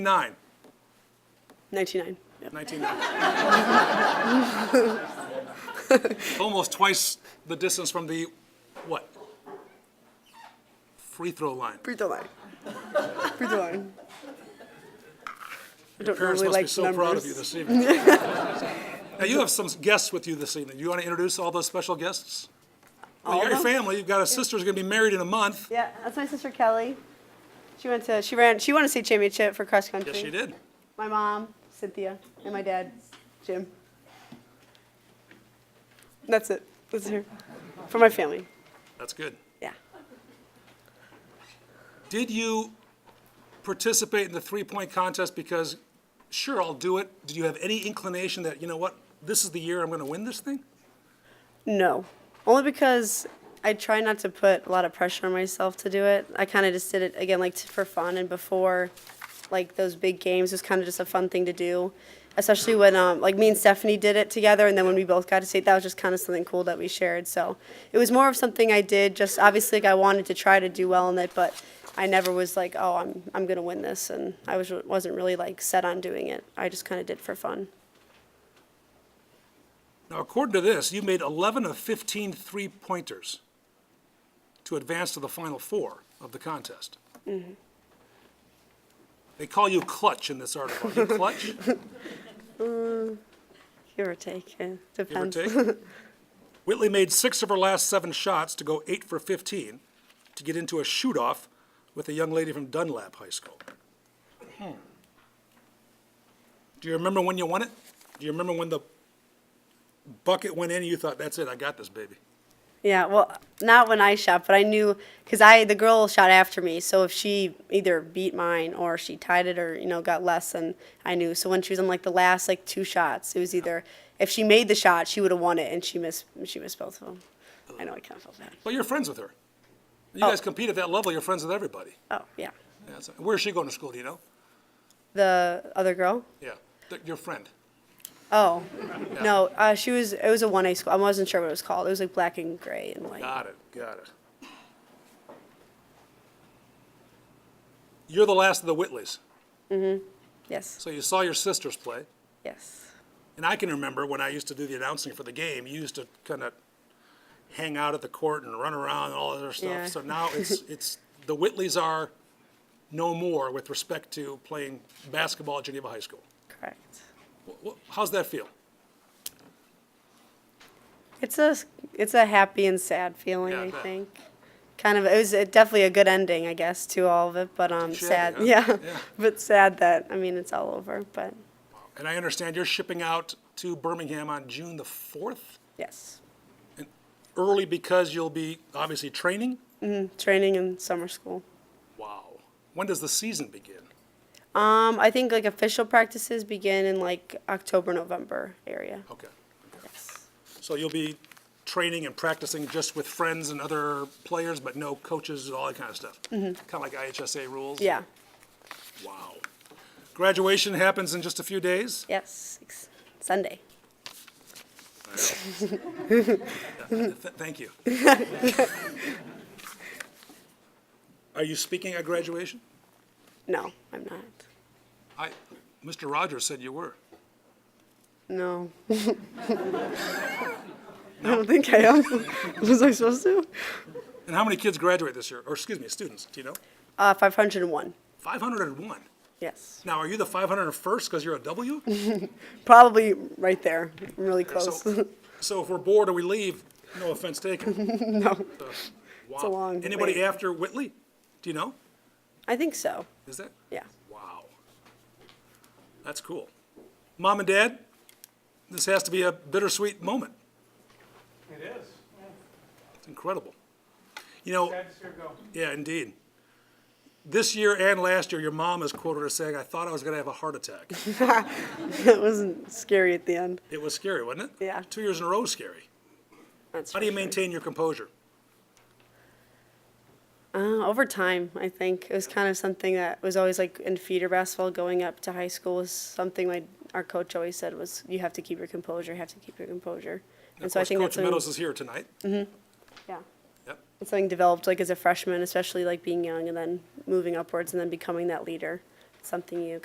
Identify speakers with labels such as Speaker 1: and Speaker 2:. Speaker 1: Nine.
Speaker 2: 99. Yep.
Speaker 1: 1990. Almost twice the distance from the, what? Free throw line.
Speaker 2: Free throw line. Free throw line. I don't
Speaker 1: Parents
Speaker 2: normally
Speaker 1: must be so
Speaker 2: like numbers.
Speaker 1: proud of you this evening. Now, you have some guests with you this evening. You want to introduce all those special guests? Well, You
Speaker 2: All
Speaker 1: got your
Speaker 2: of them?
Speaker 1: family, you've got a sister who's going to be married in a month.
Speaker 2: yeah, that's my sister Kelly. She went to she ran she won a state championship for cross country.
Speaker 1: Yes, she did.
Speaker 2: My mom, Cynthia, and my dad, Jim. That's it. That's her. For my family.
Speaker 1: That's good.
Speaker 2: Yeah.
Speaker 1: Did you participate in the three-point contest because, sure, I'll do it? Did you have any inclination that, you know what, this is the year I'm going to win this thing?
Speaker 2: No. Only because I try not to put a lot of pressure on myself to do it. I kind of just did it again, like t- for fun, and before, like those big games, it was kind of just a fun thing to do. Especially when, um, like me and Stephanie did it together, and then when we both got to state, that was just kind of something cool that we shared. So it was more of something I did. Just obviously, like I wanted to try to do well in it, but I never was like, oh, I'm I'm gonna win this, and I was wasn't really like set on doing it. I just kind of did for fun.
Speaker 1: Now, according to this, you made 11 of 15 three-pointers to advance to the final four of the contest. They call you clutch in this article. Are you clutch,
Speaker 2: Give or take, yeah,
Speaker 1: give or
Speaker 2: depends.
Speaker 1: take? Whitley made six of her last seven shots to go eight for 15 to get into a shoot-off with a young lady from Dunlap High School. Hmm. Do you remember when you won it? Do you remember when the bucket went in and you thought, that's it, I got this, baby?
Speaker 2: Yeah, well, not when I shot, but I knew because I the girl shot after me. So if she either beat mine or she tied it or you know got less than I knew. So when she was on like the last like two shots, it was either if she made the shot, she would have won it, and she missed she missed both of them. I know I kind of felt bad.
Speaker 1: Well, you're friends with her. You guys compete at that level, you're friends with everybody.
Speaker 2: Oh yeah,
Speaker 1: Yeah, so- Where's she going to school, do you know?
Speaker 2: the other girl.
Speaker 1: Yeah, th- your friend.
Speaker 2: Oh no, uh, she was it was a one A school. I wasn't sure what it was called. It was like black and gray and white.
Speaker 1: Got it, got it. You're the last of the Whitleys,
Speaker 2: Yes,
Speaker 1: so you saw your sisters play.
Speaker 2: yes,
Speaker 1: And I can remember when I used to do the announcing for the game, you used to kind of hang out at the court and run around and all that other stuff.
Speaker 2: Yeah.
Speaker 1: So now it's, it's, the Whitleys are no more with respect to playing basketball at Geneva High School.
Speaker 2: correct.
Speaker 1: Wh- wh- How's that feel?
Speaker 2: It's a it's a happy and sad feeling,
Speaker 1: Yeah, I
Speaker 2: I
Speaker 1: bet.
Speaker 2: think. Kind of it was uh, definitely a good ending, I guess, to all of it, but um
Speaker 1: Should,
Speaker 2: sad.
Speaker 1: huh?
Speaker 2: Yeah.
Speaker 1: Yeah.
Speaker 2: but sad that I mean it's all over, but
Speaker 1: And I understand you're shipping out to Birmingham on June the 4th,
Speaker 2: yes.
Speaker 1: early because you'll be obviously training?
Speaker 2: Training and summer school.
Speaker 1: Wow. When does the season begin?
Speaker 2: Um I think like official practices begin in like October November area.
Speaker 1: Okay.
Speaker 2: Yes.
Speaker 1: So you'll be training and practicing just with friends and other players, but no coaches and all that kind of stuff? Kind of like IHSA rules?
Speaker 2: Yeah.
Speaker 1: Wow. Graduation happens in just a few days?
Speaker 2: Yes. Ex- Sunday.
Speaker 1: Th- Thank you. Are you speaking at graduation?
Speaker 2: No, I'm not.
Speaker 1: I, Mr. Rogers said you were.
Speaker 2: No. I don't think I am. Was I supposed to?
Speaker 1: And how many kids graduate this year? Or excuse me, students, do you know?
Speaker 2: Uh, 501.
Speaker 1: 501.
Speaker 2: Yes.
Speaker 1: Now, are you the 501st because you're a W?
Speaker 2: Probably right there. I'm really close.
Speaker 1: So, so if we're bored or we leave, no offense taken.
Speaker 2: no,
Speaker 1: It's
Speaker 2: a long
Speaker 1: Anybody
Speaker 2: wait.
Speaker 1: after Whitley? Do you know?
Speaker 2: I think so.
Speaker 1: Is that?
Speaker 2: Yeah.
Speaker 1: Wow. That's cool. Mom and Dad, this has to be a bittersweet moment.
Speaker 3: It is.
Speaker 1: It's incredible. You know,
Speaker 3: Sad to see her go.
Speaker 1: yeah, indeed. This year and last year, your mom is quoted as saying, "I thought I was going to have a heart attack."
Speaker 2: That wasn't scary at the end.
Speaker 1: It was scary, wasn't it?
Speaker 2: Yeah.
Speaker 1: Two years in a row, was scary.
Speaker 2: That's
Speaker 1: How do you
Speaker 2: for sure.
Speaker 1: maintain your composure?
Speaker 2: Uh, over time, I think it was kind of something that was always like in feeder basketball going up to high school was something like our coach always said was you have to keep your composure, you have to keep your composure. And,
Speaker 1: Of
Speaker 2: so I
Speaker 1: course,
Speaker 2: think
Speaker 1: Coach
Speaker 2: that's something,
Speaker 1: Meadows is here tonight.
Speaker 2: yeah,
Speaker 1: Yep.
Speaker 2: it's something developed like as a freshman, especially like being young and then moving upwards and then becoming that leader. It's something you